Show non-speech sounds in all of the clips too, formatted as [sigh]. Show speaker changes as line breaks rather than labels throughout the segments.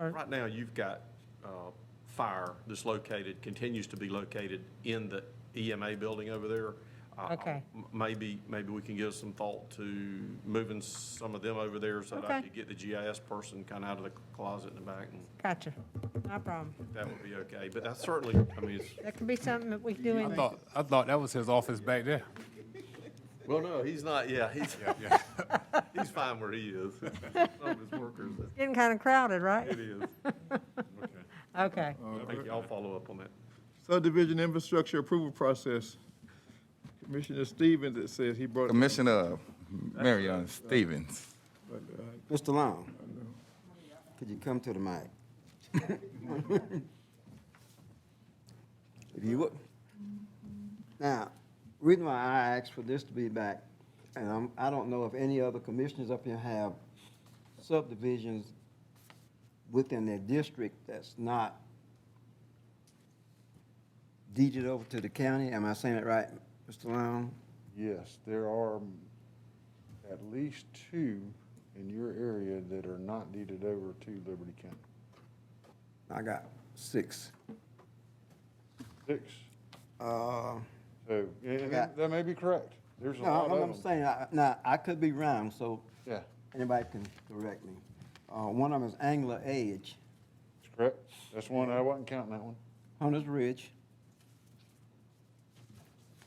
right.
Right now, you've got uh, fire that's located, continues to be located in the EMA building over there. Uh,
Okay.
m- Maybe, maybe we can give some thought to moving some of them over there so that I
Okay.
could get the GIS person kind of out of the closet in the back, and
Gotcha. No problem.
that would be okay. But that's certainly, I mean, it's,
That could be something that we can do
I
in,
thought, I thought that was his office back there.
well, no, he's not, yeah, he's,
yeah.
[laughs] he's fine where he is. [laughs] Some of his workers,
getting kind of crowded,
it
right?
is.
Okay.
I think y'all follow up on that.
Subdivision infrastructure approval process. Commissioner Stevens, it says he brought.
Commissioner uh, Marion Stevens.
Mr. Long, could you come to the mic? If you would. Now, reason why I asked for this to be back, and I'm, I don't know if any other commissioners up here have subdivisions within their district that's not deeded over to the county. Am I saying it right, Mr. Long?
Yes, there are um, at least two in your area that are not deeded over to Liberty County.
I got six.
Six.
Uh,
So, and- and
Yeah.
that that may be correct. There's a
No,
lot
I'm- I'm
of them.
saying, I- now, I could be wrong, so
Yeah,
anybody can correct me. Uh, One of them is Angler Edge,
that's correct. That's one, I wasn't counting that one.
Hunter's Ridge.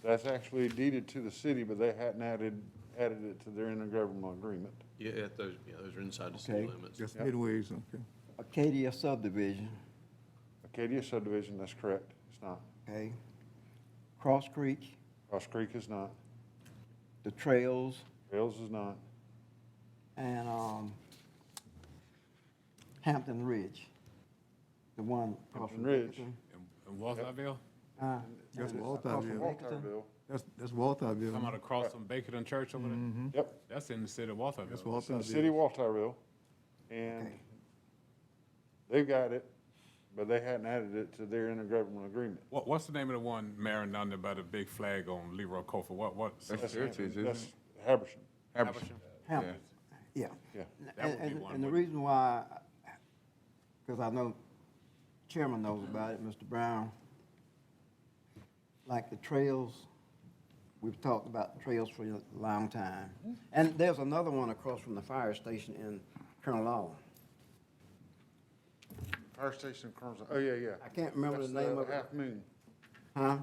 That's actually deeded to the city, but they hadn't added, added it to their intergovernmental agreement.
Yeah, those, yeah, those are inside the city
Okay.
limits.
Just midways, okay.
Acadia subdivision,
Acadia subdivision, that's correct. It's not.
okay? Cross Creek,
Cross Creek is not.
The Trails,
Rails is not.
and um, Hampton Ridge, the one. across from
Hampton Ridge.
Dickinson.
In Walterville,
Uh,
That's
and
Walthamville.
across from Dickinson.
Walterville.
That's, that's Walthamville.
come out across from Baker and Church over there.
Yep,
Mm-hmm. That's in the city of Walterville.
That's
it's in the
Walthamville.
city of Walterville. And
Okay.
they've got it, but they hadn't added it to their intergovernmental agreement.
What, what's the name of the one, Marion, down there by the big flag on Leroy Cofer? What, what?
That's Heritage,
Haberson-
isn't
That's
it?
Haberson.
Haberson.
Hampton, yeah.
Yeah.
That would
And,
be
and-
one,
and the
wouldn't
reason why, because I know Chairman knows about it, Mr. Brown, like the trails, we've talked about trails for a long time. And there's another one across from the fire station in Colonel Law.
Fire station Crumbs. Oh, yeah, yeah.
I can't remember the
That's uh,
name of it.
Half Moon,
[clears throat] Huh?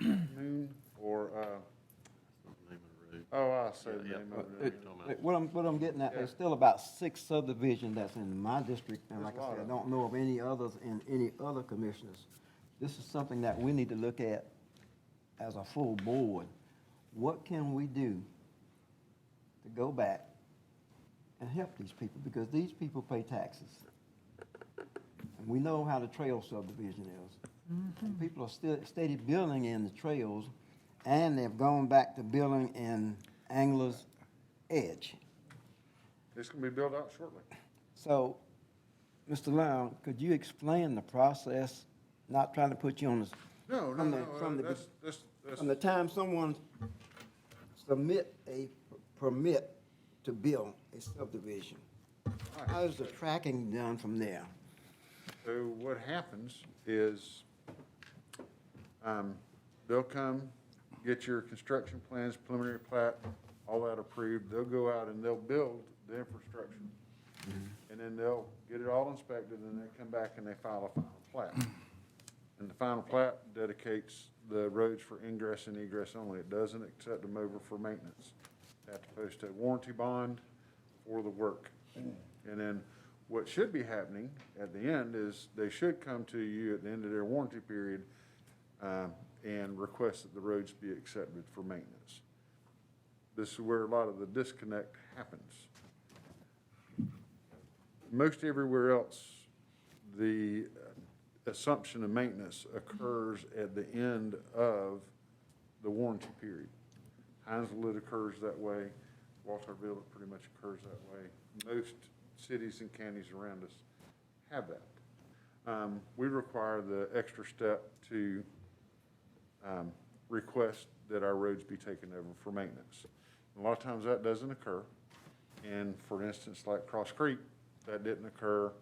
Moon, or, uh, oh, I see the name of it.
Like, What I'm, what I'm getting at, there's still about six subdivisions that's in my district, and like
There's a
I
lot
said, I
of
don't know of any others in any other commissioners. This is something that we need to look at as a full board. What can we do to go back and help these people? Because these people pay taxes. And we know how the trail subdivision is. And People are still, steady building in the trails, and they've gone back to building in Angler's Edge.
It's gonna be built out shortly.
So, Mr. Long, could you explain the process? Not trying to put you on the. s-
No, no,
from the-
no,
From
uh,
the,
that's,
be-
that's, that's,
from the time someone submit a p- permit to build a subdivision, how is the tracking done from there?
so what happens is, um, they'll come, get your construction plans, preliminary plat, all that approved. They'll go out and they'll build the infrastructure. And then they'll get it all inspected and then come back and they file a final plat. And the final plat dedicates the roads for ingress and egress only. It doesn't accept them over for maintenance. They Have to post a warranty bond for the work. And then what should be happening at the end is they should come to you at the end of their warranty period um, and request that the roads be accepted for maintenance. This is where a lot of the disconnect happens most everywhere else, the uh, assumption of maintenance occurs at the end of the warranty period. Heinzville, it occurs that way. Walterville, it pretty much occurs that way. Most cities and counties around us have that. Um, We require the extra step to um, request that our roads be taken over for maintenance. A lot of times that doesn't occur. And for instance, like Cross Creek, that didn't occur.